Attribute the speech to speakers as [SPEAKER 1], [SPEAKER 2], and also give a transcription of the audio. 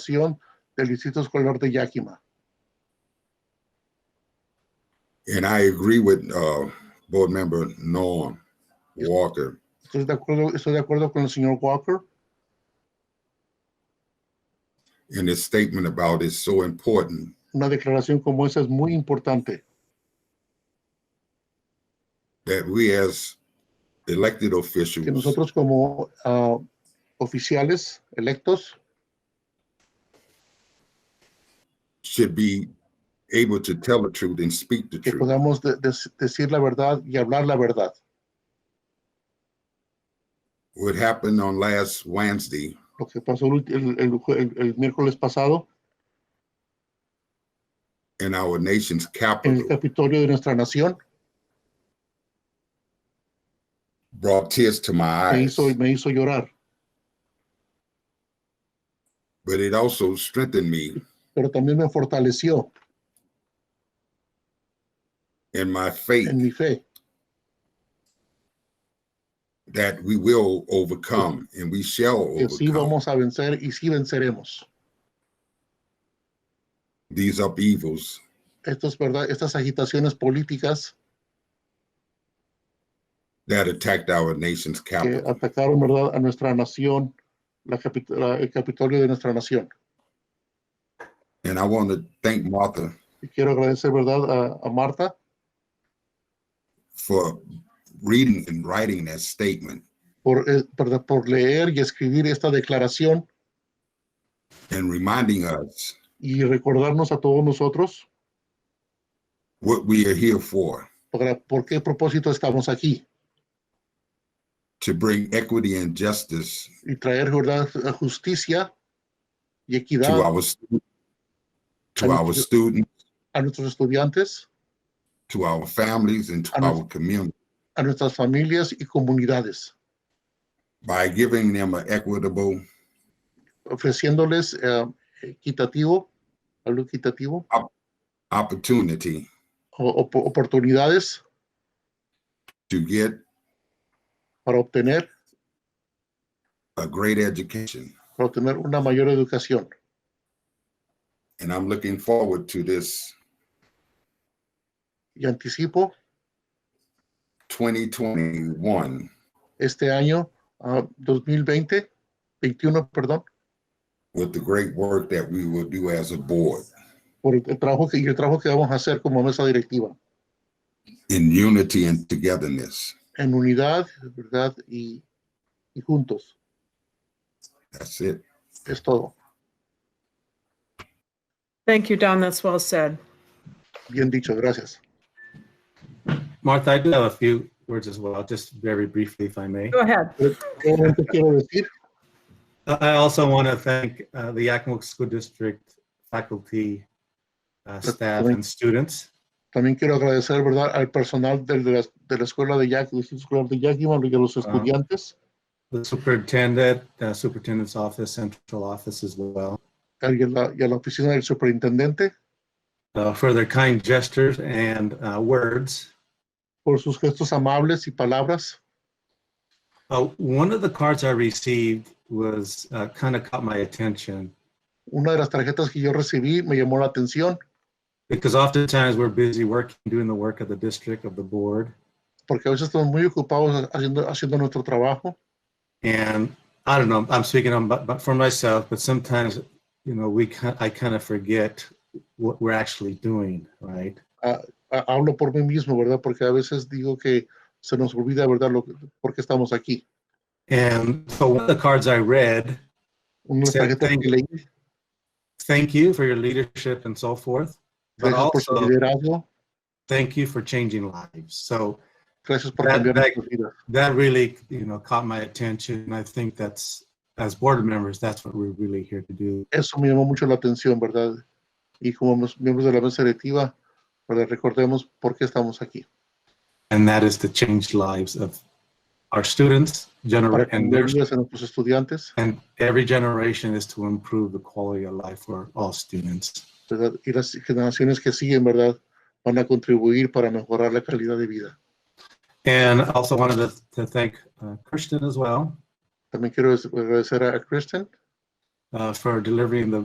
[SPEAKER 1] Administración del Distrito Escolar de Yakima.
[SPEAKER 2] And I agree with uh, Board Member Norm Walker.
[SPEAKER 1] Estoy de acuerdo, estoy de acuerdo con el señor Walker
[SPEAKER 2] And his statement about it's so important
[SPEAKER 1] una declaración como esa es muy importante,
[SPEAKER 2] that we as elected
[SPEAKER 1] que
[SPEAKER 2] officials
[SPEAKER 1] nosotros como ah, oficiales electos
[SPEAKER 2] should be able to tell the truth and speak the
[SPEAKER 1] que
[SPEAKER 2] truth.
[SPEAKER 1] podamos de- de- decir la verdad y hablar la verdad.
[SPEAKER 2] What happened on last Wednesday
[SPEAKER 1] Lo que pasó el, ulti- el- el jue- el- el miércoles pasado
[SPEAKER 2] in our nation's
[SPEAKER 1] en el
[SPEAKER 2] capital
[SPEAKER 1] Capitolio de nuestra nación
[SPEAKER 2] brought tears to my
[SPEAKER 1] me
[SPEAKER 2] eyes,
[SPEAKER 1] hizo, me hizo llorar,
[SPEAKER 2] but it also strengthened me
[SPEAKER 1] pero también me fortaleció
[SPEAKER 2] in my faith
[SPEAKER 1] en mi fe
[SPEAKER 2] that we will overcome and we shall
[SPEAKER 1] que sí
[SPEAKER 2] overcome
[SPEAKER 1] vamos a vencer y sí venceremos.
[SPEAKER 2] these upheavals
[SPEAKER 1] Estos, ¿verdad? Estas agitaciones políticas
[SPEAKER 2] that attacked our nation's
[SPEAKER 1] que
[SPEAKER 2] capital.
[SPEAKER 1] atacaron ¿verdad? a nuestra nación, la capit- la- el Capitolio de nuestra nación.
[SPEAKER 2] And I want to thank Martha
[SPEAKER 1] Y quiero agradecer ¿verdad? A, a Marta
[SPEAKER 2] for reading and writing that statement
[SPEAKER 1] por, eh, ¿verdad? por leer y escribir esta declaración
[SPEAKER 2] and reminding us
[SPEAKER 1] y recordarnos a todos nosotros
[SPEAKER 2] what we are here for
[SPEAKER 1] para, por qué propósito estamos aquí
[SPEAKER 2] to bring equity and justice
[SPEAKER 1] y traer ¿verdad? justicia y
[SPEAKER 2] to
[SPEAKER 1] equidad
[SPEAKER 2] our stu- to our students,
[SPEAKER 1] a nuestros estudiantes,
[SPEAKER 2] to our families, and to
[SPEAKER 1] And it's-
[SPEAKER 2] our community
[SPEAKER 1] a nuestras familias y comunidades,
[SPEAKER 2] by giving them an equitable
[SPEAKER 1] ofreciéndoles eh, equitativo, algo equitativo,
[SPEAKER 2] opportunity
[SPEAKER 1] o- op- oportunidades
[SPEAKER 2] to get
[SPEAKER 1] para obtener,
[SPEAKER 2] a great education.
[SPEAKER 1] para obtener una mayor educación.
[SPEAKER 2] And I'm looking forward to this
[SPEAKER 1] Y anticipo
[SPEAKER 2] 2021
[SPEAKER 1] este año ah, 2020, 21, perdón,
[SPEAKER 2] with the great work that we will do as a board
[SPEAKER 1] por el, el trabajo que, y el trabajo que vamos a hacer como mesa directiva,
[SPEAKER 2] in unity and togetherness.
[SPEAKER 1] en unidad, ¿verdad? Y, y juntos.
[SPEAKER 2] That's it.
[SPEAKER 1] Es todo.
[SPEAKER 3] Thank you, Don. That's well said.
[SPEAKER 1] Bien dicho, gracias.
[SPEAKER 4] Martha, I do have a few words as well, just very briefly, if I may.
[SPEAKER 3] Go ahead.
[SPEAKER 1] Solamente quiero decir
[SPEAKER 4] Uh, I I also want to thank uh, the Yakima School District faculty, uh, staff, and students.
[SPEAKER 1] También quiero agradecer, ¿verdad?, al personal del- de la, de la escuela de Yakima, escolar de Yakima y a los estudiantes,
[SPEAKER 4] the superintendent, uh, superintendent's office, central office as well.
[SPEAKER 1] y a la, y a la oficina del superintendente
[SPEAKER 4] Uh, for their kind gestures and uh, words.
[SPEAKER 1] por sus gestos amables y palabras.
[SPEAKER 4] Uh, one of the cards I received was uh, kind of caught my attention
[SPEAKER 1] Una de las tarjetas que yo recibí me llamó la atención
[SPEAKER 4] because oftentimes we're busy working, doing the work of the district, of the board.
[SPEAKER 1] porque a veces estamos muy ocupados haciendo, haciendo nuestro trabajo
[SPEAKER 4] And I don't know, I'm speaking on, but, but for myself, but sometimes, you know, we, ki- I kind of forget what we're actually doing, right?
[SPEAKER 1] Ah, hablo por mí mismo, ¿verdad? Porque a veces digo que se nos olvida, ¿verdad? Lo, que- por qué estamos aquí.
[SPEAKER 4] And so one of the cards I read,
[SPEAKER 1] Una de las
[SPEAKER 4] Sí,
[SPEAKER 1] tarjetas
[SPEAKER 4] thank
[SPEAKER 1] que leí,
[SPEAKER 4] thank you for your leadership and so forth, but
[SPEAKER 1] gracias por su
[SPEAKER 4] also
[SPEAKER 1] liderazgo,
[SPEAKER 4] thank you for changing lives. So
[SPEAKER 1] gracias por
[SPEAKER 4] That-
[SPEAKER 1] cambiar
[SPEAKER 4] that-
[SPEAKER 1] nuestras vidas.
[SPEAKER 4] that really, you know, caught my attention. And I think that's, as board members, that's what we're really here to do.
[SPEAKER 1] Eso me llamó mucho la atención, ¿verdad? Y como mos- miembros de la mesa directiva, ¿verdad? recordemos por qué estamos aquí.
[SPEAKER 4] And that is to change lives of our students,
[SPEAKER 1] Para
[SPEAKER 4] generate, and
[SPEAKER 1] cambiar
[SPEAKER 4] their
[SPEAKER 1] vidas a nuestros estudiantes,
[SPEAKER 4] And every generation is to improve the quality of life for all students.
[SPEAKER 1] ¿verdad? Y las generaciones que siguen, ¿verdad? Van a contribuir para mejorar la calidad de vida.
[SPEAKER 4] And I also wanted to, to thank uh, Kirsten as well
[SPEAKER 1] También quiero agradecer a Kristen
[SPEAKER 4] uh, for delivering the